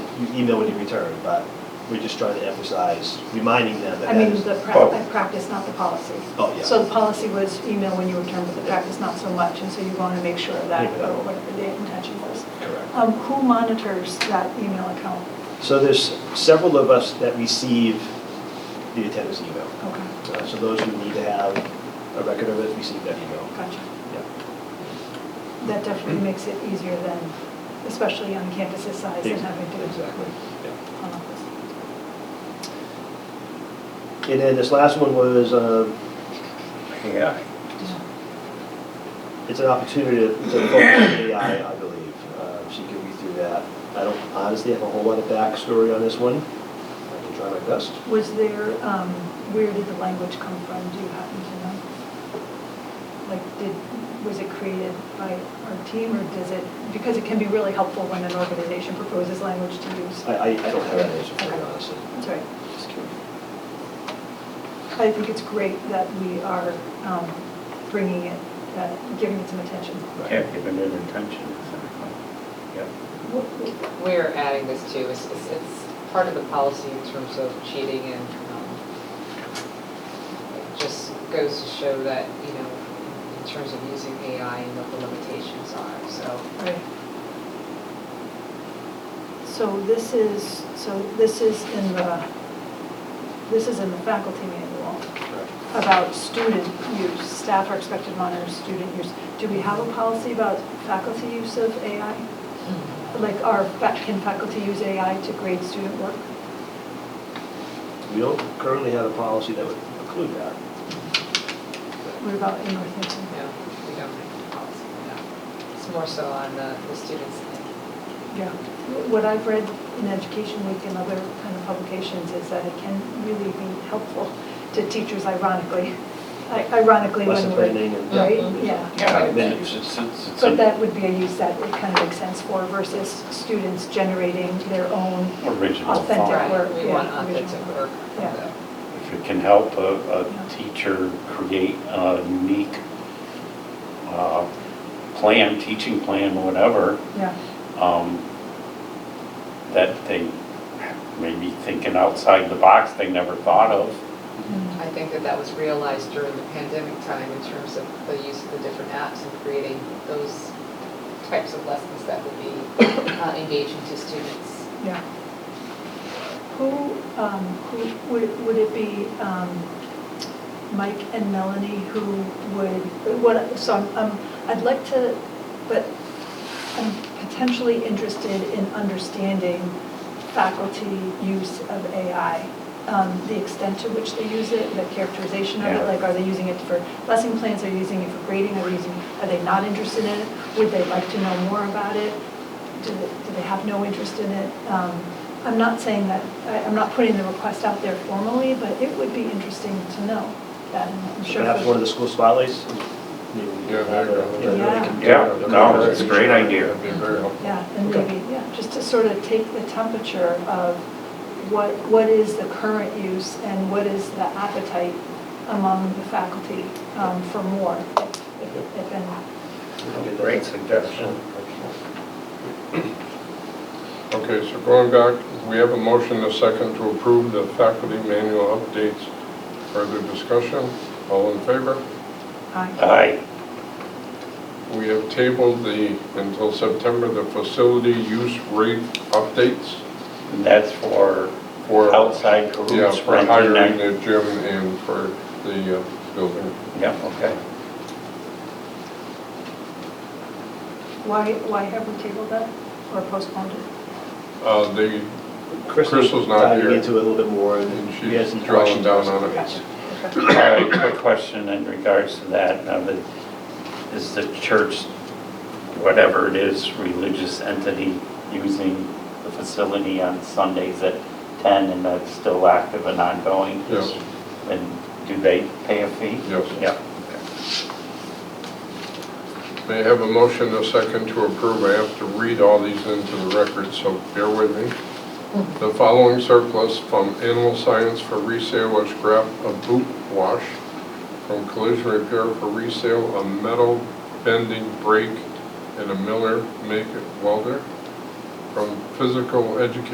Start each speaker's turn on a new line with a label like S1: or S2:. S1: you email when you return, but we're just trying to emphasize, reminding them that
S2: I
S1: that
S2: mean,
S1: is.
S2: the pra-
S3: Oh.
S2: the practice, not the policy.
S1: Oh, yeah.
S2: So the policy was email when you return, but the practice not so much, and so you want to make sure of that,
S1: Yeah.
S2: whatever the intention was.
S1: Correct.
S2: Um, Who monitors that email account?
S1: So there's several of us that receive the attendance email.
S2: Okay,
S1: Uh, So those who need to have a record of it, receive that email.
S2: gotcha.
S1: Yeah.
S2: That definitely makes it easier than, especially on campuses size and having to.
S1: Exactly, yeah.
S2: Home office.
S1: And then this last one was, um,
S3: AI.
S1: it's an opportunity to to focus on AI, I believe. Uh, So you can read through that. I don't honestly have a whole lot of backstory on this one. I can try my best.
S2: Was there, um, where did the language come from? Do you happen to know? Like, did, was it created by our team, or does it, because it can be really helpful when an organization proposes language to use.
S1: I, I I don't have an answer for you, honestly.
S2: That's all right, just curious. I think it's great that we are um, bringing it, uh, giving it some attention.
S3: Can't give it an intention, exactly. Yeah.
S4: We're adding this too, it's, it's, it's part of the policy in terms of cheating and, um, it just goes to show that, you know, in terms of using AI and what the limitations are, so.
S2: Right. So this is, so this is in the, this is in the faculty manual about student use. Staff are expected to monitor student use. Do we have a policy about faculty use of AI? Like, are, fa- can faculty use AI to grade student work?
S1: We don't currently have a policy that would include that.
S2: What about in Northampton?
S4: No, we don't have a policy, no. It's more so on the, the students.
S2: Yeah. What I've read in Education Week and other kind of publications is that it can really be helpful to teachers ironically, I- ironically
S1: Lesson
S2: when we're.
S1: planning and-
S2: Right,
S4: Mhm.
S2: yeah.
S1: Yeah,
S3: Yeah,
S1: but then
S3: it's- it's- it's- it's-
S2: But that would be a use that it kind of makes sense for versus students generating their own
S3: Original
S2: authentic
S3: thought.
S2: work.
S4: Right, we
S2: yeah,
S4: want
S2: original
S4: authentic work.
S2: Yeah.
S4: though.
S3: If it can help a, a teacher create a unique uh, plan, teaching plan, whatever,
S2: Yeah,
S3: um, that they may be thinking outside the box they never thought of.
S4: I think that that was realized during the pandemic time in terms of the use of the different apps and creating those types of lessons that would be uh, engaging to students.
S2: yeah. Who, um, who, would, would it be, um, Mike and Melanie who would, what, so I'm- I'm, I'd like to, but I'm potentially interested in understanding faculty use of AI, um, the extent to which they use it, the characterization of it,
S3: Yeah.
S2: like, are they using it for lesson plans, are they using it for grading, are they using, are they not interested in it? Would they like to know more about it? Do they, do they have no interest in it? Um, I'm not saying that, I- I'm not putting the request out there formally, but it would be interesting to know that, and I'm
S1: So
S2: sure.
S1: Perhaps one of the school spotlights? maybe we
S5: Yeah,
S1: could have a-
S5: there you
S1: you
S5: go.
S1: know, they
S2: Yeah.
S1: can-
S3: Yeah, no, it's a great idea.
S5: That'd be very helpful.
S2: Yeah, and maybe, yeah, just to sort of take the temperature of what, what is the current use and what is the appetite among the faculty um, for more, if, if any.
S1: we can get that.
S3: Great suggestion.
S5: Okay, so going back, we have a motion, a second, to approve the faculty manual updates. Further discussion? All in favor?
S3: Aye.
S5: We have tabled the, until September, the facility use rate updates
S3: And that's for
S5: for.
S3: outside
S5: Yeah,
S3: groups
S5: for
S3: renting
S5: hiring
S3: that.
S5: the gym and for the uh, building.
S3: Yeah, okay.
S2: Why, why have we tabled that or postponed it?
S5: Uh, The, Crystal's
S1: Crystal's
S5: not
S1: diving
S5: here.
S1: into it a little bit more and
S5: And
S1: she has some
S5: she's drawing
S1: questions.
S5: down on it.
S2: Gotcha. Okay.
S3: All right, quick question in regards to that. Now, the- is the church, whatever it is, religious entity using the facility on Sundays at 10 and that's still active and ongoing?
S5: Yes.
S3: And do they pay a fee?
S5: Yes.
S3: Yeah.
S5: may I have a motion, a second, to approve? I have to read all these into the record, so bear with me. The following surplus from animal science for resale was scrap a boot wash, from collision repair for resale, a metal bending brake, and a Miller make welder, from physical education